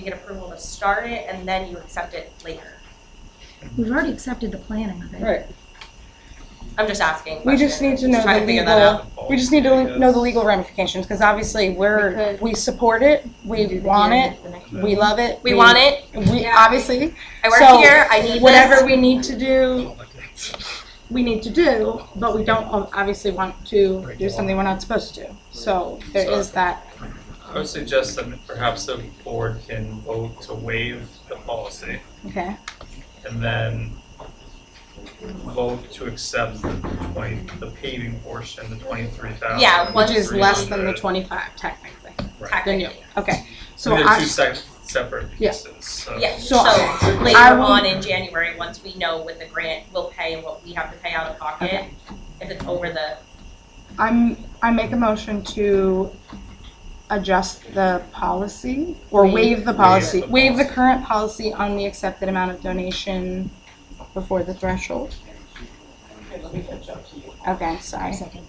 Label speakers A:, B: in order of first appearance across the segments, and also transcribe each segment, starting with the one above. A: you get approval to start it and then you accept it later?
B: We've already accepted the planning of it.
C: Right.
A: I'm just asking. a
C: We just
A: question.
C: need to know
A: trying
C: the
A: figure that out.
C: legal, we just need to know the legal ramifications, because obviously
B: We
C: we're,
B: could-
C: we support it, we want it, we love it.
A: We want it,
C: We,
A: Yeah.
C: obviously,
A: I work
C: So,
A: here, I need
C: whatever
A: this.
C: we need to do, we need to do, but we don't ob- obviously want to do something we're not supposed to. So there is that.
D: I would suggest that perhaps the board can vote to waive the policy
C: Okay,
D: and then vote to accept the twenty, the paving portion, the twenty-three thousand.
A: Yeah,
C: which is less than the twenty-five technically. Then you,
A: Technically,
C: okay. So
D: They're two
C: I,
D: se- separate
C: Yeah.
D: pieces, so.
A: yeah, so
C: So I
A: later
C: will-
A: on in January, once we know what the grant will pay and what we have to pay out of pocket, if it's over the,
C: I'm, I make a motion to adjust the policy or waive the policy,
D: Waive the
C: waive the
D: policy.
C: current policy on the accepted amount of donation before the threshold. Okay, sorry.
B: Second.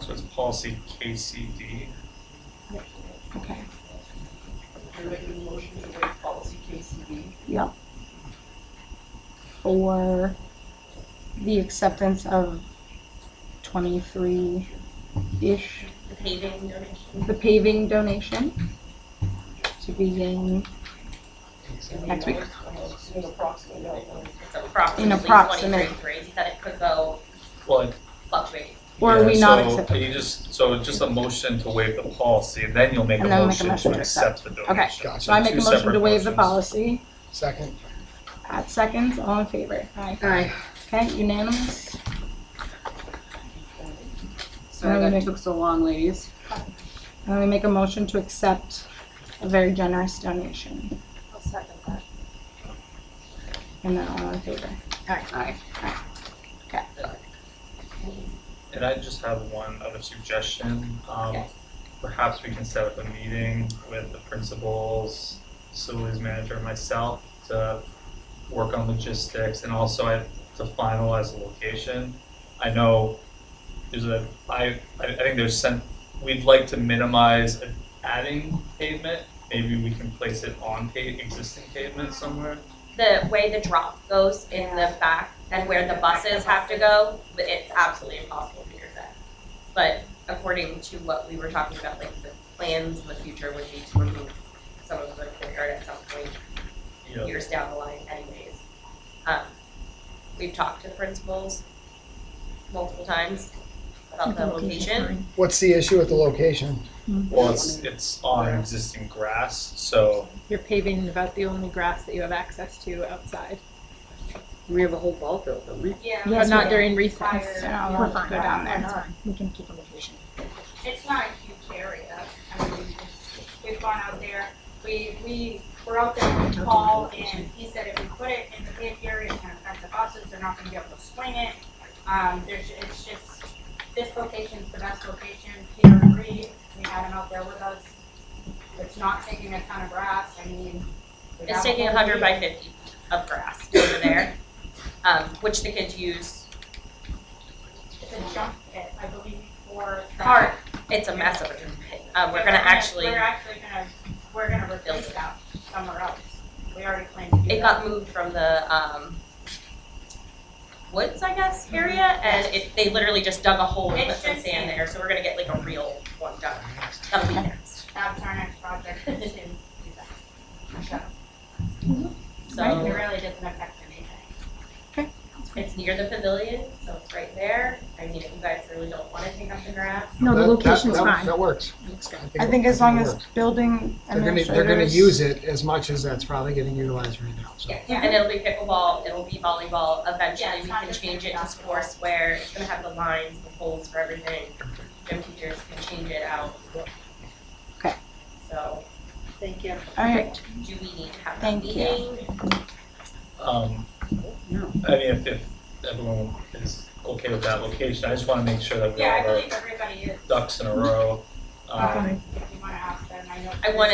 D: So it's policy KCD.
C: Okay.
E: You're making a motion to waive policy KCB.
C: Yep. For the acceptance of twenty-three-ish,
A: the paving donation.
C: the paving donation to begin next
E: Uh,
C: week.
E: In approximately that number.
A: It's approximately
C: In approximate.
A: twenty-three, he said it could go
D: Well,
A: fluctuate.
C: Or are we
D: yeah,
C: not
D: so
C: accepting?
D: You just, so just a motion to waive the policy, and then you'll make a
C: And then we'll make a
D: motion
C: motion
D: to
C: to
D: accept the donation.
C: Okay.
F: Gotcha.
C: So I make a
D: Two
C: motion to
D: separate
C: waive the
D: motions.
C: policy.
F: Second.
C: Pat seconds, all in favor? Aye.
B: Aye.
C: Okay, unanimous?
G: Sorry that took so long, ladies.
C: And then we make a motion to accept a very generous donation.
E: I'll second that.
C: And then all in favor?
G: Aye.
D: And I just have one other suggestion. Um,
A: Yes.
D: perhaps we can set up a meeting with the principals, facilities manager, and myself to work on logistics and also I- to finalize the location. I know there's a, I, I I think there's some, we'd like to minimize adding pavement. Maybe we can place it on pa- existing pavement somewhere.
A: the way the drop goes in the back and where the buses have to go, it's absolutely impossible to figure that. But according to what we were talking about, like the plans in the future would be to remove some of the courtyard at some point
D: You know,
A: years down the line anyways. Um, we've talked to the principals multiple times about the location.
F: What's the issue with the location?
D: well, it's, it's on existing grass, so
H: You're paving about the only grass that you have access to outside,
G: We have a whole ball field, don't we?
A: Yeah.
H: but
C: Yes,
H: not
C: we-
H: during recess.
C: So now
B: We're
C: we'll
B: fine.
C: go down there.
B: That's fine. We can keep a location.
I: it's not a huge area. I mean, we've gone out there, we, we were out there with Paul and he said if we put it in the paved area, it's gonna affect the buses, they're not gonna be able to swing it. Um, there's, it's just, this location's the best location, Peter agreed, we had him out there with us. It's not taking a ton of grass, I mean. we
A: It's
I: have
A: taking
I: whole
A: hundred
I: field.
A: by fifty of grass over there, um, which the kids use
I: It's a jump pit, I believe, for. the-
A: park, it's a mess of a drum pit. Um, we're gonna actually,
I: We're actually gonna, we're gonna replace that somewhere else. We already planned to do that.
A: it got moved from the, um, woods, I guess, area, and it, they literally just dug a hole and put some sand there, so we're gonna get like a real one done. That'll be next,
I: That's our next project is to do that. So it
A: so
I: really doesn't affect anything.
A: it's near the pavilion, so it's right there. I mean, if you guys really don't wanna take up the grass,
B: No, the
F: That- that-
B: location's
F: that-
B: fine.
F: That works.
C: I think as long
F: it
C: as
F: works.
C: building
F: They're gonna, they're gonna use
C: administrators,
F: it as much as that's probably getting utilized right now, so.
I: Yeah.
A: and it'll be pickleball, it'll be volleyball.
I: Yeah,
A: Eventually,
I: it's
A: we
I: not
A: can
I: just
A: change it
I: gonna be
A: to
I: basketball.
A: sports where it's gonna have the lines, the holes for everything. Gym teachers can change it out.
C: Okay.
A: So.
E: Thank you.
C: all right,
A: Do we need to have that
C: Thank you.
A: meeting?
D: Um, I mean, if, if everyone is okay with that location, I just wanna make sure that we
I: Yeah, I
D: have our
I: believe everybody is,
D: ducks in a row. Um,
I: if you wanna ask them, I
J: I know.
I: I wanna